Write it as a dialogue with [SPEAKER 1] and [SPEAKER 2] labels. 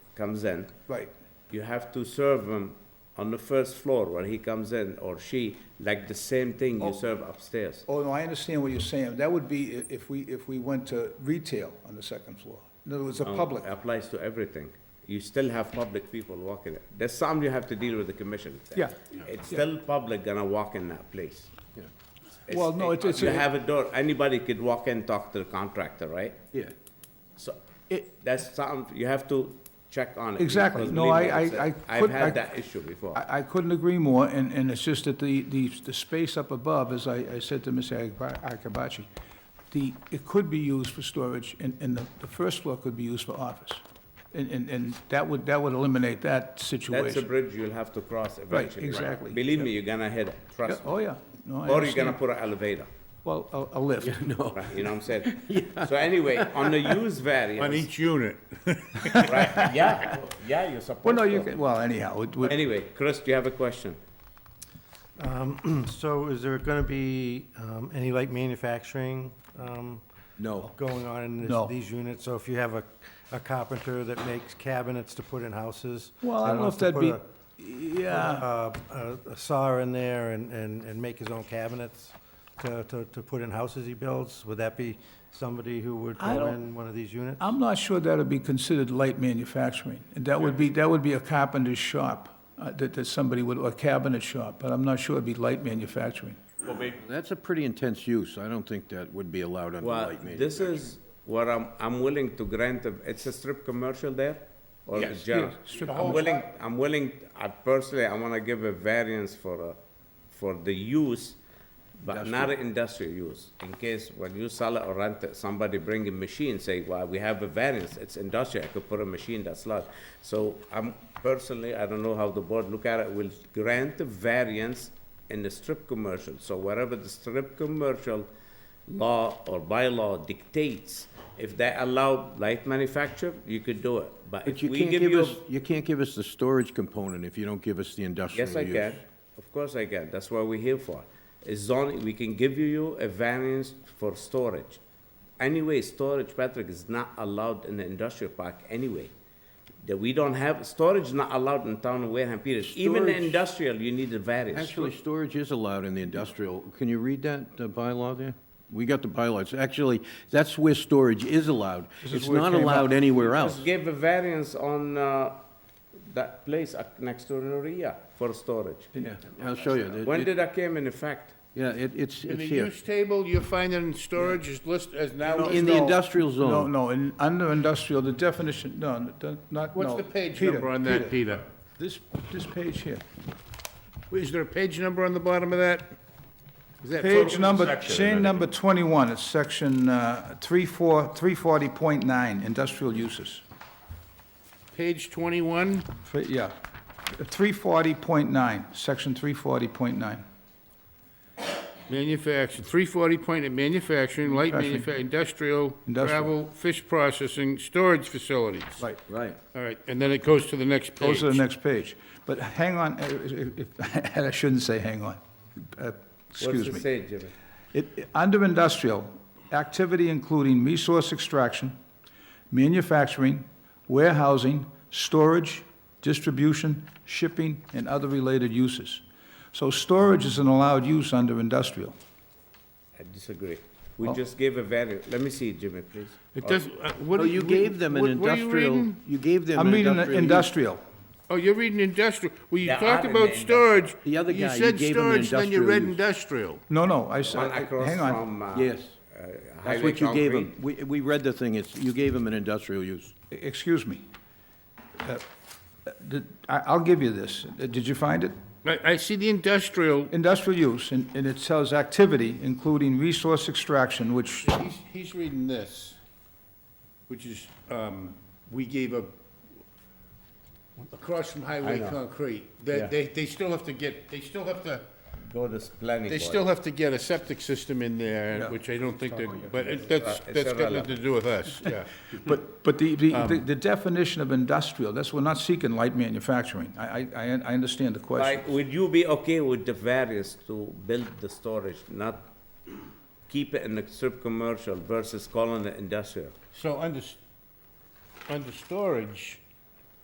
[SPEAKER 1] comes in,
[SPEAKER 2] right,
[SPEAKER 1] you have to serve him on the first floor where he comes in, or she, like the same thing
[SPEAKER 2] Oh.
[SPEAKER 1] you serve upstairs.
[SPEAKER 2] oh, no, I understand what you're saying, that would be i- if we, if we went to retail on the second floor, in other words, a
[SPEAKER 1] Um,
[SPEAKER 2] public,
[SPEAKER 1] Applies to everything. You still have public people walking it. There's something you have to deal with the commission.
[SPEAKER 2] Yeah.
[SPEAKER 1] It's still public gonna walk in that place.
[SPEAKER 3] Yeah,
[SPEAKER 1] It's-
[SPEAKER 2] Well, no, it's- it's-
[SPEAKER 1] You have a door, anybody could walk in, talk to the contractor, right?
[SPEAKER 3] yeah.
[SPEAKER 1] So,
[SPEAKER 2] It-
[SPEAKER 1] that's something, you have to check on it.
[SPEAKER 2] Exactly.
[SPEAKER 1] because
[SPEAKER 2] No,
[SPEAKER 1] believe me,
[SPEAKER 2] I- I-
[SPEAKER 1] it's a-
[SPEAKER 2] I
[SPEAKER 1] I've
[SPEAKER 2] could- I-
[SPEAKER 1] had that issue before.
[SPEAKER 2] I, I couldn't agree more, and, and it's just that the, the, the space up above, as I, I said to Mr. Akba- Akabachi, the, it could be used for storage, and, and the, the first floor could be used for office. And, and, and that would, that would eliminate that
[SPEAKER 1] That's a
[SPEAKER 2] situation.
[SPEAKER 1] bridge you'll have to cross eventually.
[SPEAKER 2] exactly.
[SPEAKER 1] Believe me, you're gonna hit it,
[SPEAKER 2] Yeah,
[SPEAKER 1] trust me.
[SPEAKER 2] Oh, yeah, no, I
[SPEAKER 1] Or you're gonna
[SPEAKER 2] understand.
[SPEAKER 1] put an elevator,
[SPEAKER 2] Well, a, a lift,
[SPEAKER 3] No,
[SPEAKER 1] right, you know what I'm saying? So anyway, on the use
[SPEAKER 3] on
[SPEAKER 1] variance,
[SPEAKER 3] each unit.
[SPEAKER 1] right, yeah, yeah, you're supposed to.
[SPEAKER 2] well, no, you can, well, anyhow, it would,
[SPEAKER 1] Anyway, Chris, do you have a question?
[SPEAKER 4] So is there going to be um, any light manufacturing um,
[SPEAKER 1] No.
[SPEAKER 4] going on in
[SPEAKER 2] No.
[SPEAKER 4] this- these units? So if you have a a carpenter that makes cabinets to put in houses?
[SPEAKER 2] well, I
[SPEAKER 4] and
[SPEAKER 2] don't know
[SPEAKER 4] wants
[SPEAKER 2] if
[SPEAKER 4] to
[SPEAKER 2] that'd
[SPEAKER 4] put
[SPEAKER 2] be,
[SPEAKER 4] a-
[SPEAKER 2] yeah,
[SPEAKER 4] A a- a saw in there and, and and make his own cabinets to, to to put in houses he builds? Would that be somebody who would
[SPEAKER 2] I
[SPEAKER 4] go
[SPEAKER 2] don't-
[SPEAKER 4] in one of these units?
[SPEAKER 2] I'm not sure that'd be considered light manufacturing. And That would be, that would be a carpenter's shop, uh, that, that somebody would, or a cabinet shop, but I'm not sure it'd be light manufacturing.
[SPEAKER 3] That's a pretty intense use. I don't think that would be allowed under
[SPEAKER 1] Well,
[SPEAKER 3] light
[SPEAKER 1] this
[SPEAKER 3] manufacturing.
[SPEAKER 1] is what I'm, I'm willing to grant, a- it's a strip commercial there? Or a
[SPEAKER 3] Yes.
[SPEAKER 1] general?
[SPEAKER 2] Yes, strip
[SPEAKER 1] I'm willing, I'm willing, I personally, I wanna give a variance for, a- for the use, but not an industrial use. In case when you sell it or rent it, somebody bring a machine, say, well, we have a variance, it's industrial, I could put a machine that's large. So I'm personally, I don't know how the board look at it, will grant a variance in the strip commercial. So wherever the strip commercial law or bylaw dictates, if they allow light manufacture, you could do it. But
[SPEAKER 3] But
[SPEAKER 1] if
[SPEAKER 3] you
[SPEAKER 1] we
[SPEAKER 3] can't
[SPEAKER 1] give
[SPEAKER 3] give
[SPEAKER 1] you,
[SPEAKER 3] us, you can't give us the storage component if you don't give us the industrial
[SPEAKER 1] yes,
[SPEAKER 3] use.
[SPEAKER 1] I can, of course I can, that's what we're here for. Is zoning, we can give you a variance for storage. Anyway, storage, Patrick, is not allowed in the industrial park anyway. That we don't have, storage not allowed in town of Wareham, period. Even the
[SPEAKER 3] Storage-
[SPEAKER 1] industrial, you need a variance.
[SPEAKER 3] Actually, storage is allowed in the industrial. Can you read that, the bylaw there? We got the bylaws. Actually, that's where storage is allowed.
[SPEAKER 2] This is
[SPEAKER 3] It's
[SPEAKER 2] where it
[SPEAKER 3] not
[SPEAKER 2] came up.
[SPEAKER 3] allowed anywhere else.
[SPEAKER 1] Just give a variance on, uh, that place uh, next to Noria for storage.
[SPEAKER 3] Yeah, I'll show you. It-
[SPEAKER 1] When
[SPEAKER 3] it-
[SPEAKER 1] did that came in effect?
[SPEAKER 3] Yeah, it, it's,
[SPEAKER 5] In
[SPEAKER 3] it's
[SPEAKER 5] the
[SPEAKER 3] here.
[SPEAKER 5] use table, you find it in storage is list as now,
[SPEAKER 3] In the
[SPEAKER 2] No,
[SPEAKER 3] industrial
[SPEAKER 2] No,
[SPEAKER 3] zone.
[SPEAKER 2] no, in, under industrial, the definition, no, no, don't- not, no.
[SPEAKER 5] what's the page
[SPEAKER 2] Peter,
[SPEAKER 5] number on that,
[SPEAKER 2] Peter,
[SPEAKER 5] Peter?
[SPEAKER 2] This, this page here.
[SPEAKER 5] Is there a page number on the bottom of that? Is that
[SPEAKER 2] Page
[SPEAKER 5] photo-
[SPEAKER 2] number,
[SPEAKER 5] section?
[SPEAKER 2] chain number 21, it's section uh, 34 340.9, industrial uses.
[SPEAKER 5] Page twenty-one,
[SPEAKER 2] Three- Yeah, 340.9, section 340.9.
[SPEAKER 5] manufacturing, three forty point of manufacturing, light manufa,
[SPEAKER 2] Manufacturing.
[SPEAKER 5] industrial,
[SPEAKER 2] Industrial.
[SPEAKER 5] travel, fish processing, storage facilities.
[SPEAKER 2] Right.
[SPEAKER 3] Right.
[SPEAKER 5] All right, and then it goes to the next
[SPEAKER 2] Goes
[SPEAKER 5] page.
[SPEAKER 2] to the next page. But hang on, uh, if- if- I shouldn't say hang on. Uh, Excuse me.
[SPEAKER 1] What's it say, Jimmy?
[SPEAKER 2] It- it- Under industrial, activity including resource extraction, manufacturing, warehousing, storage, distribution, shipping, and other related uses. So storage is an allowed use under industrial.
[SPEAKER 1] I disagree.
[SPEAKER 3] Oh.
[SPEAKER 1] We just gave a variance. Let me see, Jimmy, please.
[SPEAKER 5] It doesn't, uh, what
[SPEAKER 3] Well,
[SPEAKER 5] do
[SPEAKER 3] Oh, you gave them an
[SPEAKER 5] what- what are you
[SPEAKER 3] industrial,
[SPEAKER 5] reading?
[SPEAKER 3] you gave them
[SPEAKER 2] I'm
[SPEAKER 3] an
[SPEAKER 2] reading
[SPEAKER 3] industrial. use.
[SPEAKER 2] industrial.
[SPEAKER 5] Oh, you're reading industrial, well, you
[SPEAKER 1] Yeah,
[SPEAKER 5] talked
[SPEAKER 1] I'm in
[SPEAKER 5] about
[SPEAKER 1] the
[SPEAKER 5] storage.
[SPEAKER 3] The other guy, you
[SPEAKER 5] said
[SPEAKER 3] gave him an
[SPEAKER 5] storage, Then you
[SPEAKER 3] industrial
[SPEAKER 5] read
[SPEAKER 3] use.
[SPEAKER 5] industrial.
[SPEAKER 2] No, no, I
[SPEAKER 1] One
[SPEAKER 2] said,
[SPEAKER 1] across
[SPEAKER 2] hang on.
[SPEAKER 1] from, uh,
[SPEAKER 3] Yes.
[SPEAKER 1] uh,
[SPEAKER 3] That's
[SPEAKER 1] Highway
[SPEAKER 3] what you gave them.
[SPEAKER 1] Concrete.
[SPEAKER 3] We, we read the thing, it's, you gave them an industrial use.
[SPEAKER 2] Excuse me. Uh, uh, did- I- I'll give you this. Uh, Did you find it?
[SPEAKER 5] I, I see the industrial,
[SPEAKER 2] Industrial use, and and it says activity including resource extraction, which
[SPEAKER 5] he's, he's reading this, which is, um, we gave a, across from highway concrete,
[SPEAKER 1] Yeah.
[SPEAKER 5] that, they, they still have to get, they still have to,
[SPEAKER 1] Go to planning
[SPEAKER 5] they
[SPEAKER 1] board.
[SPEAKER 5] still have to get a septic system in there, which I don't think they, but it- that's,
[SPEAKER 1] Uh, It's
[SPEAKER 5] that's got
[SPEAKER 1] irrelevant.
[SPEAKER 5] nothing to do with us, yeah.
[SPEAKER 2] But, but the, the, the- the definition of industrial, that's, we're not seeking light manufacturing. I, I, I I understand the question.
[SPEAKER 1] Like, would you be okay with the variance to build the storage, not keep it in the strip commercial versus calling it industrial?
[SPEAKER 5] So under, s- under storage,